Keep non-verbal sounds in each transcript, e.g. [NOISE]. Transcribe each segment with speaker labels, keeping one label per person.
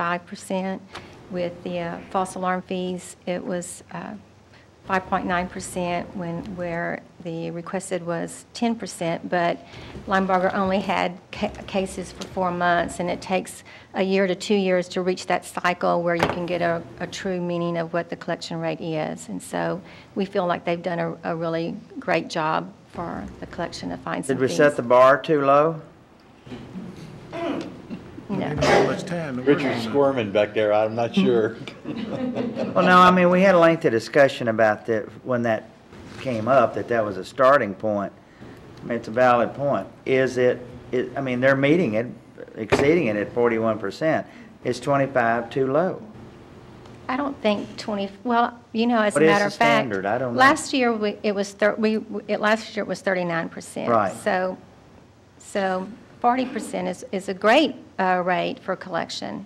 Speaker 1: 25%. With the uh, false alarm fees, it was uh, 5.9% when, where the requested was 10%, but Limeberger only had ca- cases for four months, and it takes a year to two years to reach that cycle where you can get a, a true meaning of what the collection rate is. And so we feel like they've done a, a really great job for the collection of fines
Speaker 2: Did
Speaker 1: and
Speaker 2: we
Speaker 1: fees.
Speaker 2: set the bar too low?
Speaker 1: No.
Speaker 3: How much time to work on
Speaker 4: Richard's
Speaker 3: it?
Speaker 4: squirming back there, I'm not
Speaker 5: [LAUGHS]
Speaker 4: sure.
Speaker 2: Well, no, I mean, we had a lengthy discussion about that, when that came up, that that was a starting point. I mean, it's a valid point. Is it, it, I mean, they're meeting it, exceeding it at forty-one percent. Is twenty-five too low?
Speaker 1: I don't think 20, well, you know, as a
Speaker 2: What is
Speaker 1: matter
Speaker 2: the
Speaker 1: of fact.
Speaker 2: standard? I don't know.
Speaker 1: Last year, we- it was, thir- we, it, last year it was 39%.
Speaker 2: Right.
Speaker 1: So, so 40% is, is a great uh, rate for collection.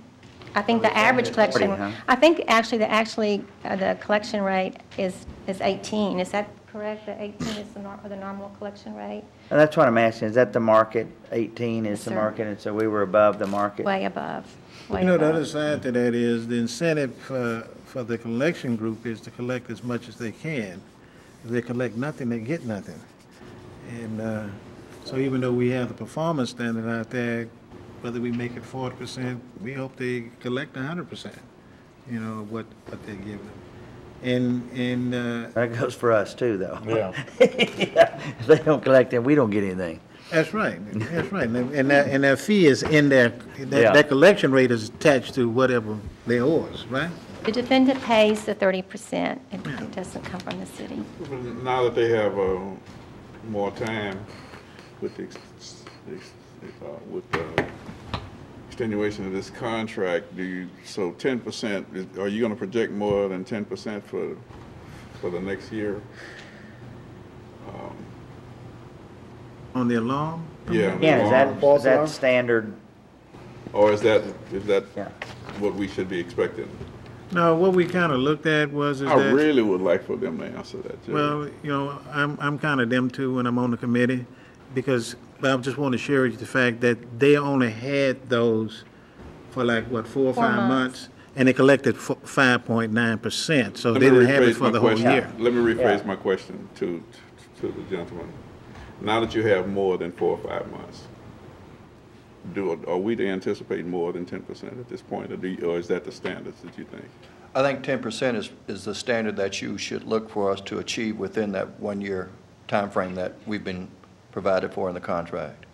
Speaker 1: I think the average collection,
Speaker 2: 40, huh?
Speaker 1: I think actually, the, actually, uh, the collection rate is, is 18. Is that correct? The 18 is the nor, the normal collection rate?
Speaker 2: And that's what I'm asking, is that the market? Eighteen is the
Speaker 1: sir.
Speaker 2: market, and so we were above the market?
Speaker 1: Way above, way
Speaker 3: You know, the
Speaker 1: above.
Speaker 3: other side to that is the incentive for, for the collection group is to collect as much as they can. If they collect nothing, they get nothing. And, uh, so even though we have the performance standard out there, whether we make it forty percent, we hope they collect hundred percent, you know, of what, what they're giving them. And, and, uh,
Speaker 2: That goes for us too, though. [LAUGHS]
Speaker 4: Yeah.
Speaker 2: If they don't collect it, we don't get anything.
Speaker 3: That's right, that's right, and and that, and that fee is in there,
Speaker 2: Yeah.
Speaker 3: that, that collection rate is attached to whatever they owe us, right?
Speaker 1: The defendant pays the 30%. It- It doesn't come from the city.
Speaker 6: Now that they have uh, more time with the, ex- ex- uh, with the extenuation of this contract, do you, so ten percent, are you gonna project more than ten percent for, for the next year?
Speaker 3: On the alarm?
Speaker 6: Yeah.
Speaker 2: Yeah, is that,
Speaker 6: alarms.
Speaker 2: is that standard?
Speaker 6: Or is that, is that
Speaker 2: Yeah.
Speaker 6: what we should be expecting?
Speaker 3: No, what we kind of looked at was is
Speaker 6: I
Speaker 3: that,
Speaker 6: Oh, really would like for them to answer that, Jerry.
Speaker 3: well, you know, I'm, I'm kind of them too when I'm on the committee, because, but I just want to share with you the fact that they only had those for like, what, four or
Speaker 1: Four
Speaker 3: five
Speaker 1: months.
Speaker 3: months? And they collected five point nine percent, so
Speaker 6: Let
Speaker 3: they
Speaker 6: me
Speaker 3: didn't have it
Speaker 6: rephrase my
Speaker 3: for the whole
Speaker 6: question.
Speaker 3: year.
Speaker 6: Let me
Speaker 2: Yeah.
Speaker 6: rephrase my question to, to the gentleman. Now that you have more than four or five months, do, are we to anticipate more than ten percent at this point, or do, you- or is that the standards that you think?
Speaker 7: I think ten percent is, is the standard that you should look for us to achieve within that one-year timeframe that we've been provided for in the contract.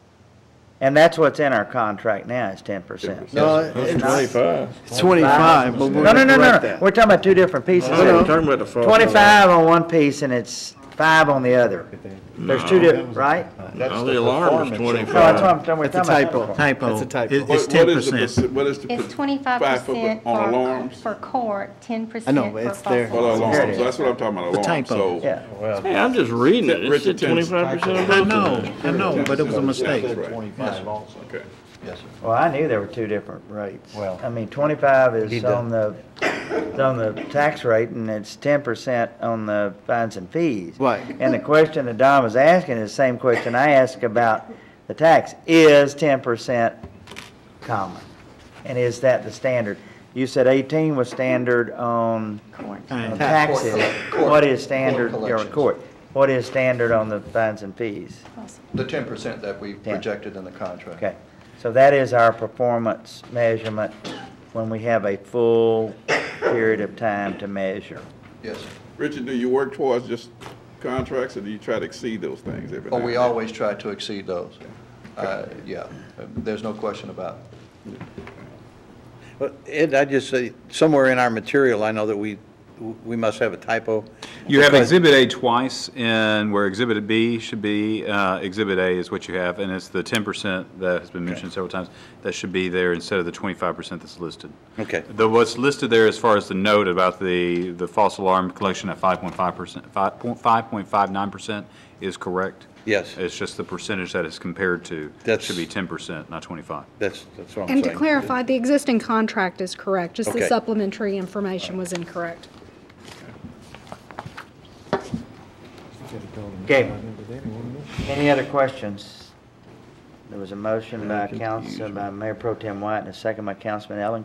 Speaker 2: And that's what's in our contract now, is ten percent.
Speaker 6: 10%.
Speaker 4: Twenty-five.
Speaker 5: Twenty-five, but we're
Speaker 2: No, no,
Speaker 5: gonna
Speaker 2: no, no,
Speaker 5: correct
Speaker 2: no.
Speaker 5: that.
Speaker 2: We're talking about two different pieces.
Speaker 5: no.
Speaker 2: Talking about the Twenty-five on one piece and it's five on the other. There's two different, right?
Speaker 4: That's the alarm is
Speaker 2: No, that's what I'm, talking- we're
Speaker 5: That's a
Speaker 2: talking
Speaker 5: typo.
Speaker 2: about.
Speaker 3: Typo.
Speaker 5: That's a typo.
Speaker 3: It- It's
Speaker 6: What- what
Speaker 3: ten
Speaker 6: is the
Speaker 3: percent.
Speaker 6: perc- What is the?
Speaker 1: It's
Speaker 6: per-
Speaker 1: 25%
Speaker 6: five for- On
Speaker 1: for,
Speaker 6: alarms?
Speaker 1: for court, 10% for
Speaker 5: I know, but it's
Speaker 1: false
Speaker 5: there.
Speaker 6: For the
Speaker 1: alarm.
Speaker 2: Here it
Speaker 6: alarms,
Speaker 2: is.
Speaker 6: so that's what I'm talking about,
Speaker 3: The
Speaker 6: alarms,
Speaker 3: typo.
Speaker 6: so.
Speaker 2: Yeah.
Speaker 8: Hey, I'm just reading it. It
Speaker 6: Richard
Speaker 8: said
Speaker 6: Tim's-
Speaker 8: twenty-five percent of
Speaker 3: I
Speaker 8: both of
Speaker 3: know,
Speaker 8: them.
Speaker 3: I know, but it was a mistake.
Speaker 6: That's right. Okay.
Speaker 7: Yes, sir.
Speaker 2: Well, I knew there were two different rates.
Speaker 4: Well-
Speaker 2: I mean, twenty-five is
Speaker 4: Need to-
Speaker 2: on the, it's on the tax rate and it's ten percent on the fines and fees.
Speaker 5: Right.
Speaker 2: And the question that Don was asking is the same question I asked about the tax. Is ten percent common? And is that the standard? You said eighteen was standard on
Speaker 1: Court.
Speaker 2: on
Speaker 3: Fine.
Speaker 2: taxes.
Speaker 7: Uh, Court-
Speaker 2: What is standard,
Speaker 7: court
Speaker 2: or
Speaker 7: collections.
Speaker 2: court? What is standard on the fines and fees?
Speaker 7: The ten percent that we projected in the contract.
Speaker 2: Okay, so that is our performance measurement when we have a full period of time to measure.
Speaker 7: Yes, sir.
Speaker 6: Richard, do you work towards just contracts, or do you try to exceed those things every now
Speaker 7: Oh,
Speaker 6: and
Speaker 7: we
Speaker 6: then?
Speaker 7: always try to exceed those. Uh, yeah, there's no question about it.
Speaker 5: But Ed, I just say, somewhere in our material, I know that we, we must have a typo.
Speaker 9: You have
Speaker 5: because-
Speaker 9: Exhibit A twice, and where Exhibit B should be, uh, Exhibit A is what you have, and it's the 10% that has been mentioned several times, that should be there instead of the 25% that's listed.
Speaker 5: Okay.
Speaker 9: The, what's listed there as far as the note about the, the false alarm collection at 5.5%, 5.59% is correct.
Speaker 5: Yes.
Speaker 9: It's just the percentage that is compared to,
Speaker 5: That's-
Speaker 9: should be 10%, not 25.
Speaker 5: That's, that's what I'm saying.
Speaker 10: And to clarify, the existing contract is correct, just the
Speaker 5: Okay.
Speaker 10: supplementary information was incorrect.
Speaker 2: Okay, any other questions? There was a motion by Council, by Mayor Pro Tem White, and a second by Councilman Ellen